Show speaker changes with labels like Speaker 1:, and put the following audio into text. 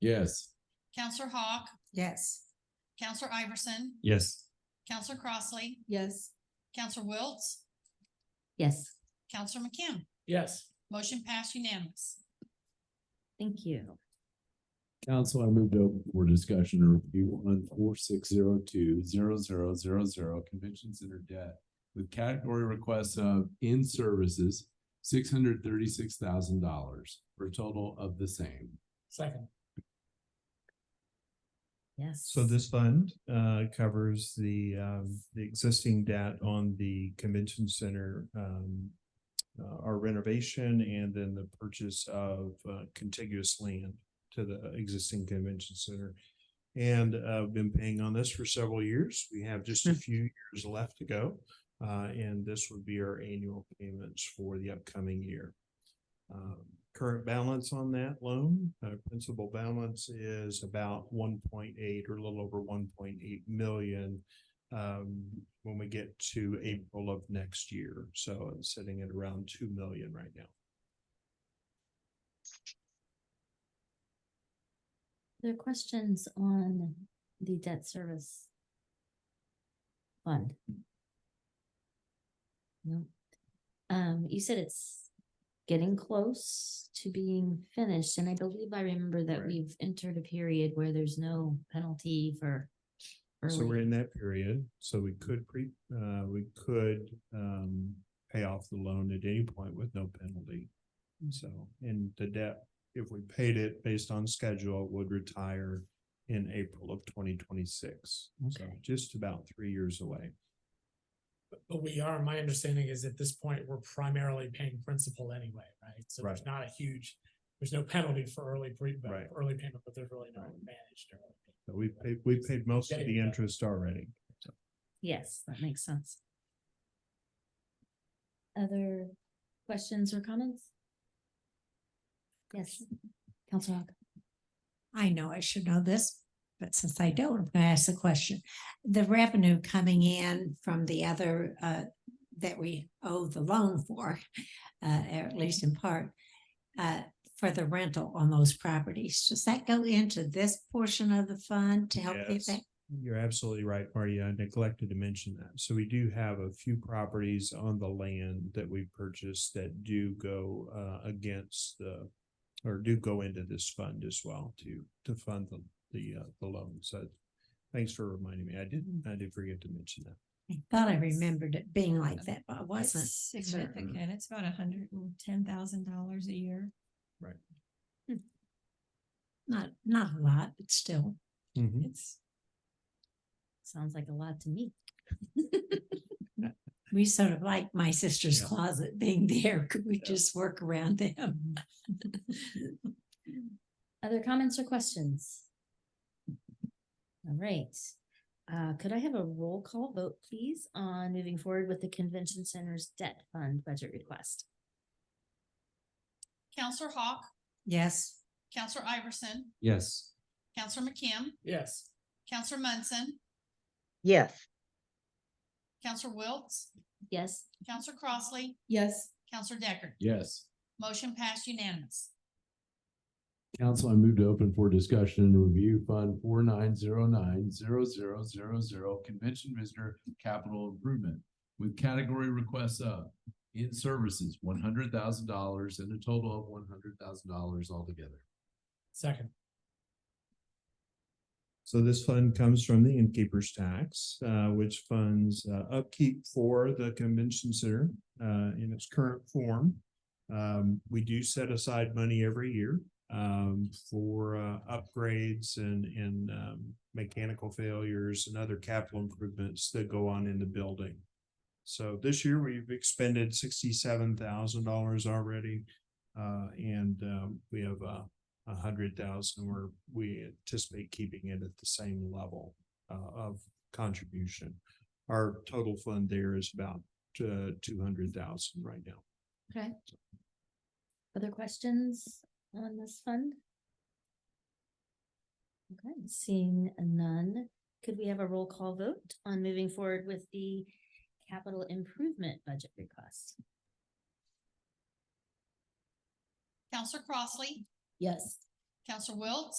Speaker 1: Yes.
Speaker 2: Counselor Hawk,
Speaker 3: Yes.
Speaker 2: Counselor Iverson,
Speaker 1: Yes.
Speaker 2: Counselor Crossley,
Speaker 3: Yes.
Speaker 2: Counselor Wiltz,
Speaker 4: Yes,
Speaker 2: Counselor McKim.
Speaker 1: Yes.
Speaker 2: Motion passed unanimous.
Speaker 4: thank you.
Speaker 1: Council, I moved over for discussion or review on four six zero two zero zero zero zero convention center debt with category requests of in services, six hundred thirty-six thousand dollars for a total of the same.
Speaker 5: Second.
Speaker 4: Yes.
Speaker 6: So this fund uh covers the um the existing debt on the convention center um. Uh, our renovation and then the purchase of uh, contiguous land to the existing convention center. And uh I've been paying on this for several years. We have just a few years left to go. Uh, and this would be our annual payments for the upcoming year. Um, Current balance on that loan, uh, principal balance is about one point eight or a little over one point eight million. Um, when we get to April of next year, so it's sitting at around two million right now.
Speaker 4: There are questions on the debt service fund? No. Um, you said it's getting close to being finished, and I believe I remember that
Speaker 6: Right.
Speaker 4: we've entered a period where there's no penalty for
Speaker 6: So we're
Speaker 4: early.
Speaker 6: in that period, so we could pre, uh, we could, um, pay off the loan at any point with no penalty. So, and the debt, if we paid it based on schedule, would retire in April of twenty twenty-six. So
Speaker 4: Okay.
Speaker 6: just about three years away.
Speaker 5: But we are, my understanding is at this point, we're primarily paying principal anyway, right? So there's
Speaker 6: Right.
Speaker 5: not a huge, there's no penalty for early pre, but
Speaker 6: Right.
Speaker 5: early payment, but there's really no
Speaker 6: Right.
Speaker 5: advantage to early payment.
Speaker 6: But we paid, we paid most of
Speaker 5: Getting
Speaker 6: the
Speaker 5: it done.
Speaker 6: interest already.
Speaker 4: Yes, that makes sense. Other questions or comments? Yes, Counselor Hawk.
Speaker 3: I know I should know this, but since I don't, I'm gonna ask the question. The revenue coming in from the other uh that we owe the loan for, uh at least in part. Uh for the rental on those properties, does that go into this portion of the fund to help pay
Speaker 6: Yes.
Speaker 3: back?
Speaker 6: You're absolutely right, Marty. I neglected to mention that. So we do have a few properties on the land that we purchased that do go uh against the. Or do go into this fund as well to to fund the the uh the loan. So thanks for reminding me. I didn't, I did forget to mention that.
Speaker 3: I thought I remembered it being like that, but it
Speaker 7: It's
Speaker 3: wasn't.
Speaker 7: significant. It's about a hundred and ten thousand dollars a year.
Speaker 3: Hmm. Not, not a lot, but still.
Speaker 7: It's,
Speaker 4: Sounds like a lot to me.
Speaker 3: We sort of like my sister's
Speaker 6: Yeah.
Speaker 3: closet being there. Could we
Speaker 6: Yeah.
Speaker 3: just work around them?
Speaker 4: Other comments or questions? All right, uh, could I have a roll call vote, please, on moving forward with the Convention Center's debt fund budget request?
Speaker 2: Counselor Hawk,
Speaker 3: Yes.
Speaker 2: Counselor Iverson,
Speaker 1: Yes.
Speaker 2: Counselor McKim,
Speaker 5: Yes,
Speaker 2: Counselor Munson,
Speaker 8: yes,
Speaker 2: Counselor Wiltz,
Speaker 4: Yes,
Speaker 2: Counselor Crossley,
Speaker 3: Yes.
Speaker 2: Counselor Deckard.
Speaker 1: Yes.
Speaker 2: Motion passed unanimous.
Speaker 1: Council, I move to open for discussion and review Fund four nine zero nine zero zero zero zero Convention Visitor Capital Improvement with category requests of in services, one hundred thousand dollars and a total of one hundred thousand dollars altogether.
Speaker 5: second.
Speaker 6: So this fund comes from the innkeeper's tax, uh, which funds uh, upkeep for the convention center, uh, in its current form. Um, we do set aside money every year, um, for, uh, upgrades and, and, um, mechanical failures and other capital improvements that go on in the building. So this year we've expended sixty-seven thousand dollars already. Uh, and, um, we have, uh, a hundred thousand, we're, we anticipate keeping it at the same level uh, of contribution. Our total fund there is about uh two hundred thousand right now.
Speaker 4: okay. Other questions on this fund? Okay, seeing none, could we have a roll call vote on moving forward with the capital improvement budget request?
Speaker 2: Counselor Crossley,
Speaker 4: Yes.
Speaker 2: Counselor Wiltz,